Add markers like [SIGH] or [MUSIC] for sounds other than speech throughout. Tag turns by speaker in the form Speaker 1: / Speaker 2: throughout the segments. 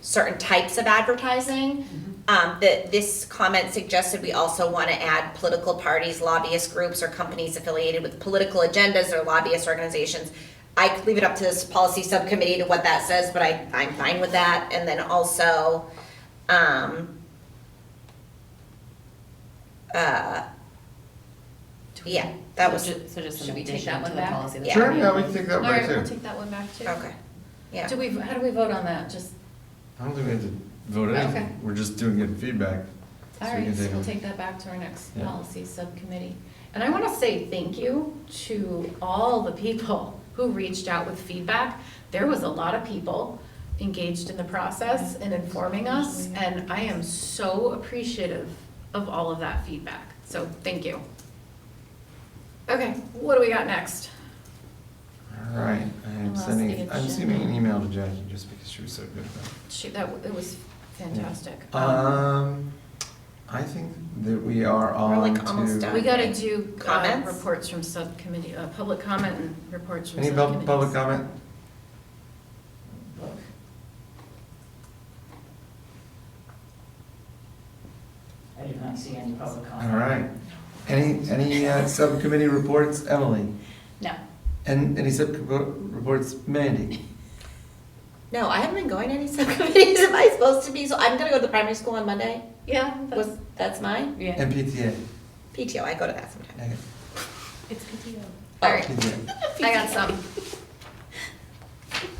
Speaker 1: certain types of advertising. Um, that this comment suggested we also want to add political parties, lobbyist groups, or companies affiliated with political agendas or lobbyist organizations. I could leave it up to this policy subcommittee to what that says, but I, I'm fine with that. And then also, um, uh, yeah, that was,
Speaker 2: So ju- So just
Speaker 3: Should
Speaker 2: an
Speaker 3: we take
Speaker 2: addition
Speaker 3: that
Speaker 2: to
Speaker 3: one
Speaker 2: the
Speaker 3: back?
Speaker 2: policy. that's
Speaker 1: Yeah.
Speaker 4: Sure,
Speaker 2: already
Speaker 4: yeah,
Speaker 2: on.
Speaker 4: we can take that
Speaker 3: All
Speaker 4: one
Speaker 3: right, we'll
Speaker 4: too.
Speaker 3: take that one back too.
Speaker 1: okay, yeah.
Speaker 3: Do we, how do we vote on that? Just,
Speaker 4: I don't think we have to vote
Speaker 3: Okay.
Speaker 4: anything, we're just doing good feedback. So
Speaker 3: all
Speaker 4: we
Speaker 3: right,
Speaker 4: can
Speaker 3: so
Speaker 4: take
Speaker 3: we'll
Speaker 4: them.
Speaker 3: take that back to our next
Speaker 4: Yeah.
Speaker 3: policy subcommittee. And I want to say thank you to all the people [LAUGHS] who reached out with feedback. There was a lot of people engaged in the process and informing us, and I am so appreciative of all of that feedback. So thank you. Okay, what do we got next?
Speaker 4: All right, I am
Speaker 3: Unless the
Speaker 4: sending, I'm
Speaker 3: agenda-
Speaker 4: sending an email to Jackie just because she was so good about it.
Speaker 3: She, that, it was fantastic.
Speaker 4: Um, I think that we are
Speaker 1: We're,
Speaker 4: on
Speaker 1: like, almost
Speaker 4: to,
Speaker 1: done.
Speaker 3: We gotta do uh,
Speaker 1: Comments?
Speaker 3: reports from subcommittee, uh, public comment and reports from
Speaker 4: any pub-
Speaker 3: subcommittees.
Speaker 4: public comment?
Speaker 5: I did not see any public comment.
Speaker 4: All right, any, any uh, subcommittee reports, Emily?
Speaker 2: No.
Speaker 4: And any subcommittee reports, Mandy?
Speaker 1: No, I haven't been going to any [LAUGHS] subcommittees. Am I supposed to be? So I'm gonna go to the primary school on Monday.
Speaker 3: Yeah, that's,
Speaker 1: Was that's mine?
Speaker 2: Yeah.
Speaker 4: And PTA?
Speaker 1: PTO. I go to that sometimes.
Speaker 4: Okay,
Speaker 2: It's PTO.
Speaker 3: all right,
Speaker 4: PTA.
Speaker 3: I got some.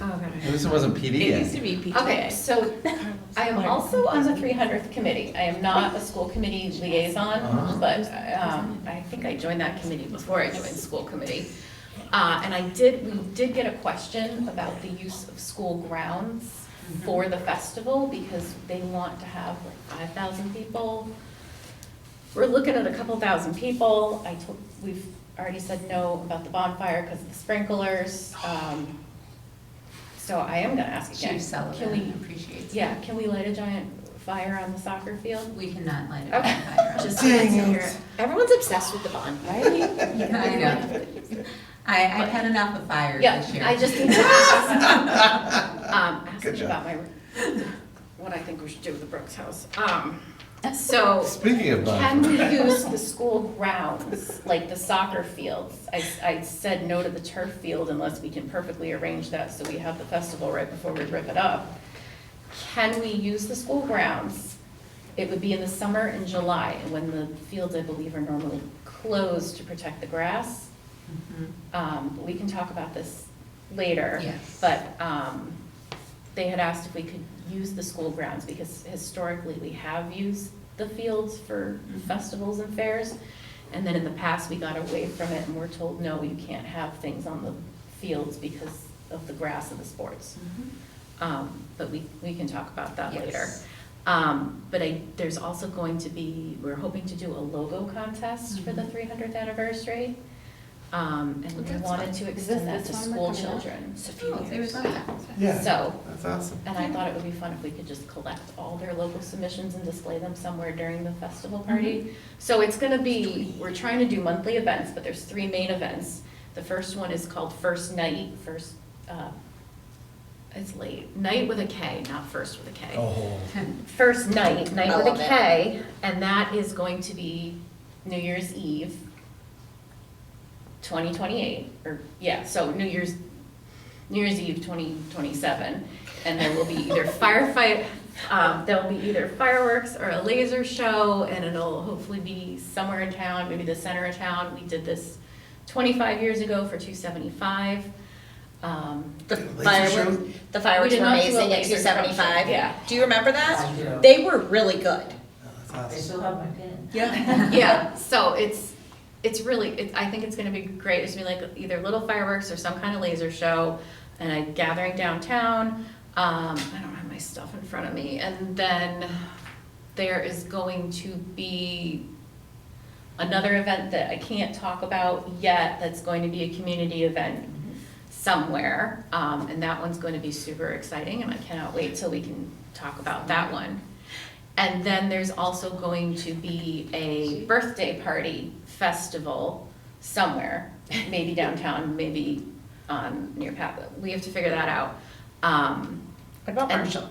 Speaker 3: Oh,
Speaker 4: At least it wasn't PD
Speaker 2: It used
Speaker 4: yet.
Speaker 2: to be PTA.
Speaker 3: God. Okay, so I am also on the three hundredth committee. I am not a school committee
Speaker 4: Uh-huh.
Speaker 3: liaison, but, um, I think I joined that committee before I joined school committee. Uh, and I did, we did get a question about the use of school grounds for the festival because they want to have like five thousand people. We're looking at a couple thousand people. I told, we've already said no about the bonfire because of the sprinklers. Um, So I am gonna ask again.
Speaker 2: Chief
Speaker 3: Can we
Speaker 2: Sullivan appreciates. it.
Speaker 3: yeah, can we light a giant fire on the soccer field?
Speaker 2: We cannot light it on
Speaker 3: Okay.
Speaker 2: fire.
Speaker 3: [LAUGHS] Just
Speaker 4: Dang
Speaker 3: wanted to
Speaker 4: it.
Speaker 3: hear it.
Speaker 1: Everyone's obsessed with the bond.
Speaker 3: Right?
Speaker 2: [LAUGHS] I know. I, I've had enough of fire
Speaker 3: Yeah,
Speaker 2: this year.
Speaker 3: I
Speaker 2: [LAUGHS]
Speaker 3: just need to ask, um, ask
Speaker 4: Good
Speaker 3: me
Speaker 4: job.
Speaker 3: about my, what I think we should do with the Brooks House. Um, so,
Speaker 4: Speaking of
Speaker 3: can we
Speaker 4: bonfire,
Speaker 3: use the school grounds, like the soccer fields? I, I said no to the turf field unless we can perfectly arrange that, so we have the festival right before we rip it up. Can we use the school grounds? It would be in the summer in July, when the fields, I believe, are normally closed to protect the grass.
Speaker 2: Mhm.
Speaker 3: Um, we can talk about this later.
Speaker 2: Yes.
Speaker 3: But, um, they had asked if we could use the school grounds, because historically, we have used the fields for
Speaker 2: Mm-hmm.
Speaker 3: festivals and fairs. And then in the past, we got away from it, and we're told, no, you can't have things on the fields because of the grass and the sports.
Speaker 2: Mhm.
Speaker 3: Um, but we, we can talk about that
Speaker 2: Yes.
Speaker 3: later. Um, but I, there's also going to be, we're hoping to do a logo contest for the three hundredth anniversary. Um,
Speaker 2: Well,
Speaker 3: and we
Speaker 2: that's
Speaker 3: wanted
Speaker 2: fun.
Speaker 3: to
Speaker 2: Is
Speaker 3: extend that
Speaker 2: this-
Speaker 3: to
Speaker 2: this one
Speaker 3: school
Speaker 2: we're coming up?
Speaker 3: children.
Speaker 2: Oh, they would love that.
Speaker 4: yeah,
Speaker 3: So-
Speaker 4: that's awesome.
Speaker 3: And I thought it would be fun if we could just collect all their local submissions and display them somewhere during the festival party. So it's gonna be, we're trying to do monthly events, but there's three main events. The first one is called First Night, first, uh, it's late, Night with a K, not First with a K.
Speaker 4: Oh.
Speaker 2: [LAUGHS]
Speaker 3: First Night, Night
Speaker 1: Mm-hmm. I
Speaker 3: with
Speaker 1: love
Speaker 3: a
Speaker 1: it.
Speaker 3: K, and that is going to be New Year's Eve, twenty twenty-eight, or, yeah, so New Year's, New Year's Eve twenty twenty-seven. And there will be
Speaker 1: [LAUGHS]
Speaker 3: either firefight, um, there'll be either fireworks or a laser show, and it'll hopefully be somewhere in town, maybe the center of town. We did this twenty-five years ago for two seventy-five. Um,
Speaker 1: The
Speaker 4: Laser
Speaker 1: fireworks, the fireworks
Speaker 3: We did
Speaker 1: were
Speaker 3: not do a
Speaker 1: amazing at
Speaker 3: laser
Speaker 1: two seventy five.
Speaker 3: show, yeah.
Speaker 1: Do you remember that?
Speaker 5: I do.
Speaker 1: They were really good.
Speaker 4: That's
Speaker 5: I
Speaker 4: awesome.
Speaker 5: still have my pin.
Speaker 1: [LAUGHS] Yeah.
Speaker 3: Yeah, [LAUGHS] so it's, it's really, it, I think it's gonna be great, it's gonna be like either little fireworks or some kind of laser show, and a gathering downtown, um, I don't have my stuff in front of me, and then there is going to be another event that I can't talk about yet, that's going to be a community event somewhere, um, and that one's gonna be super exciting, and I cannot wait till we can talk about that one. And then there's also going to be a birthday party festival somewhere, maybe downtown, maybe on near Pat. We have to figure that out. Um,
Speaker 1: What about
Speaker 3: And-
Speaker 1: Marshall?